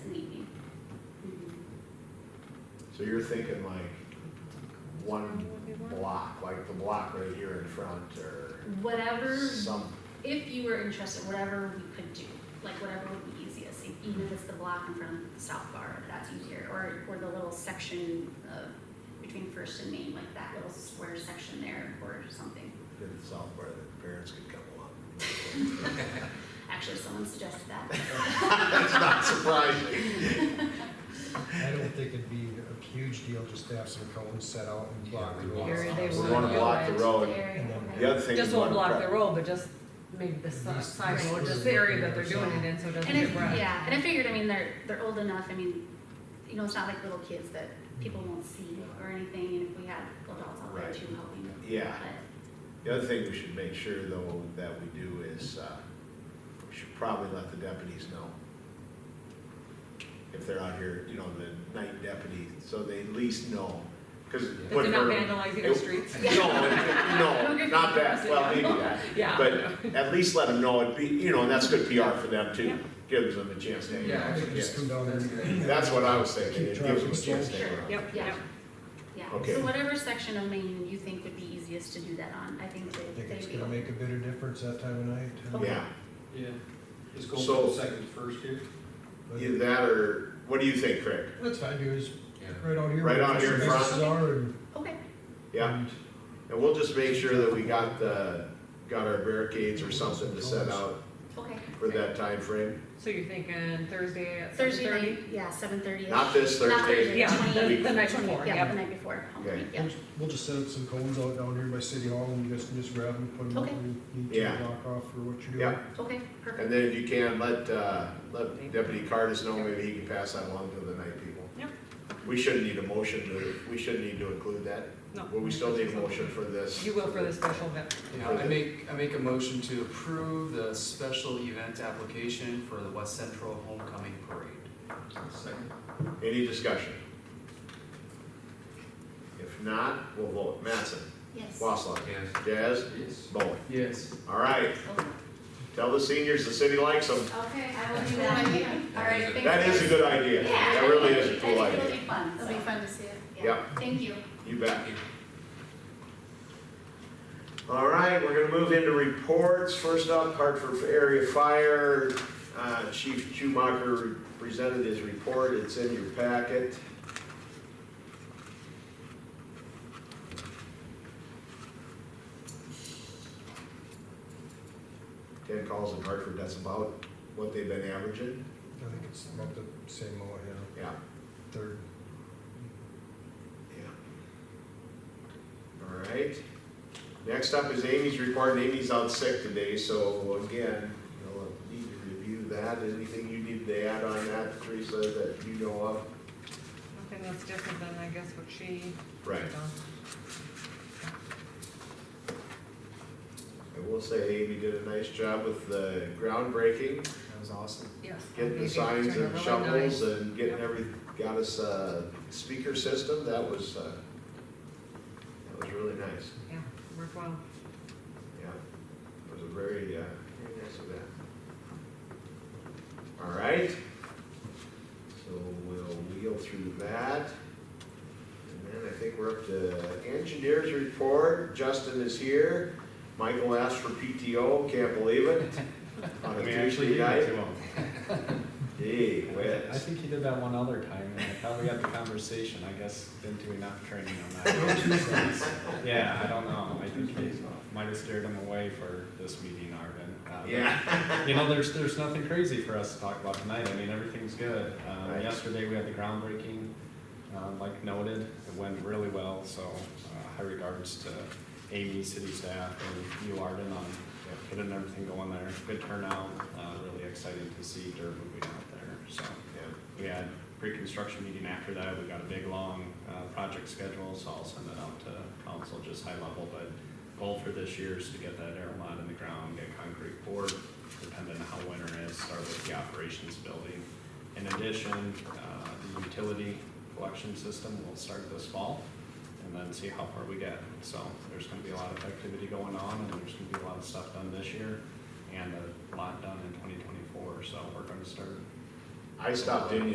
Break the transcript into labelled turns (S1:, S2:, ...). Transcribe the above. S1: So you're thinking like one block, like the block right here in front or
S2: Whatever,
S1: some,
S2: if you were interested, whatever we could do, like whatever would be easiest, e- even if it's the block in front of the South Bar, if that's easier, or, or the little section of, between First and Main, like that little square section there, or something.
S1: in the south part that the parents could come along.
S2: Actually, someone suggested that.
S1: That's not surprising.
S3: I don't think it'd be a huge deal just to have some cones set out and block the road.
S4: Here they
S1: We
S4: want
S1: wanna
S4: to
S1: block the road.
S3: And then-
S1: The other thing is.
S4: Just
S1: we
S4: won't
S1: wanna
S4: block the
S1: prep-
S4: road, but just maybe the si-
S3: These-
S4: side
S3: these
S4: road, just
S3: squares
S4: the area
S3: up
S4: that
S3: here
S4: they're
S3: or
S4: doing it
S3: something.
S4: in, so it doesn't
S2: And I,
S4: get wrecked.
S2: yeah, and I figured, I mean, they're, they're old enough, I mean, you know, it's not like little kids that people won't see or anything, and if we had adults out there
S1: Right.
S2: too helping,
S1: Yeah,
S2: but,
S1: the other thing we should make sure though that we do is, uh, we should probably let the deputies know. If they're out here, you know, the night deputy, so they at least know, cause.
S4: That they're not vandalizing our
S1: it-
S4: streets.
S1: No, no, not that, well, maybe that.
S4: Yeah.
S1: But at least let them know, it'd be, you know, and that's good PR for them too, gives them a chance to hang
S3: Yeah,
S1: out.
S3: they could just come down
S5: That's a good idea.
S3: and.
S1: That's what I was thinking, it
S3: Keep
S1: gives them a
S3: traffic
S1: chance to
S3: flow.
S1: hang out.
S4: Yep,
S2: yeah,
S4: yep.
S2: yeah.
S1: Okay.
S2: So whatever section of Maine you think would be easiest to do that on, I think
S3: I
S2: they,
S3: think it's
S2: they'd be.
S3: gonna make a bit of difference that time of night.
S2: Okay.
S1: Yeah,
S5: Yeah, just go
S1: So-
S5: for the second first here.
S3: But
S1: either that or, what do you think, Craig?
S3: That's fine, do is right out here.
S1: Right
S3: where
S1: out here in
S3: the
S1: front.
S3: businesses are and-
S2: Okay,
S1: Yeah,
S3: and
S1: and we'll just make sure that we got the, got our barricades or something to set out
S2: okay.
S1: for that time frame.
S4: So you're thinking Thursday at seven
S2: Thursday
S4: thirty?
S2: night, yeah, seven thirty.
S1: Not this Thursday.
S4: Yeah, the,
S1: Week.
S4: the night before,
S2: Yeah,
S4: yep.
S2: the night before,
S1: Okay.
S2: yeah,
S3: We'll just set up some cones out down here by City Hall and you guys can just grab them, put them up
S2: Okay.
S3: where you need
S1: Yeah.
S3: to block off for what you're doing.
S1: Yeah.
S2: okay, perfect.
S1: And then if you can, let, uh, let Deputy Cardis know, maybe he can pass that along to the night people.
S4: Yep.
S1: We shouldn't need a motion to, we shouldn't need to include that,
S4: No.
S1: Well, we still need a motion for this.
S4: You will for the special event.
S6: Yeah, I make, I make a motion to approve the special event application for the West Central Homecoming Parade.
S5: Second.
S1: Any discussion? If not, we'll vote. Mattson,
S2: Yes.
S1: Waslaw,
S6: Yes.
S1: Jazz,
S5: Yes.
S1: Bowen.
S5: Yes.
S1: All right,
S2: Okay,
S1: tell the seniors the city likes them.
S2: Okay, I will do that, all right, thanks.
S1: That is a good idea.
S2: Yeah.
S1: That really is a cool
S2: I think it'll
S1: idea.
S2: be fun,
S7: It'll be fun to see it.
S2: so, yeah,
S1: Yep.
S2: thank you.
S1: You bet. All right, we're gonna move into reports. First up, Hartford Area Fire. Uh, Chief Schumacher presented his report. It's in your packet. Ten calls in Hartford, that's about what they've been averaging.
S3: I think it's about the same, amount, yeah,
S1: Yeah.
S3: third.
S1: Yeah. All right. Next up is Amy's report. Amy's out sick today, so again, you'll need to review that. Anything you need to add on that, Teresa, that you know of?
S4: Nothing that's different than, I guess, what she
S1: Right.
S4: done.
S1: I will say Amy did a nice job with the groundbreaking,
S6: That was awesome.
S4: Yes.
S1: getting the
S4: Maybe
S1: signs
S4: turn
S1: and
S4: over
S1: shovels
S4: nice.
S1: and getting every, got us a speaker system. That was, uh, that was really nice.
S4: Yeah, worked well.
S1: Yeah, it was a very, uh, very nice event. All right, so we'll wheel through that. And then I think we're up to engineers report, Justin is here. Michael asked for PTO, can't believe it. On a Tuesday night. Gee
S8: I
S1: whiz.
S8: think he did that one other time, and I thought we had the conversation, I guess, didn't do enough training on that. Yeah, I don't know, I think he might have steered him away for this meeting, Arvin. Uh, but,
S1: Yeah,
S8: You know, there's, there's nothing crazy for us to talk about tonight, I mean, everything's good. Um,
S1: Right.
S8: yesterday, we had the groundbreaking, um, like noted, it went really well, so, uh, high regards to Amy, city staff, and you, Arvin, on getting everything going there. Good turnout, uh, really excited to see Durban moving out there, so.
S1: yeah,
S8: We had pre-construction meeting after that, we got a big, long, uh, project schedule, so I'll send it out to council, just high level, but goal for this year is to get that air lot in the ground, get concrete poured, depending on how winter is, start with the operations building. In addition, uh, the utility collection system will start this fall, and then see how far we get. So there's gonna be a lot of activity going on, and there's gonna be a lot of stuff done this year, and a lot done in twenty twenty-four, so we're gonna start
S1: I stopped in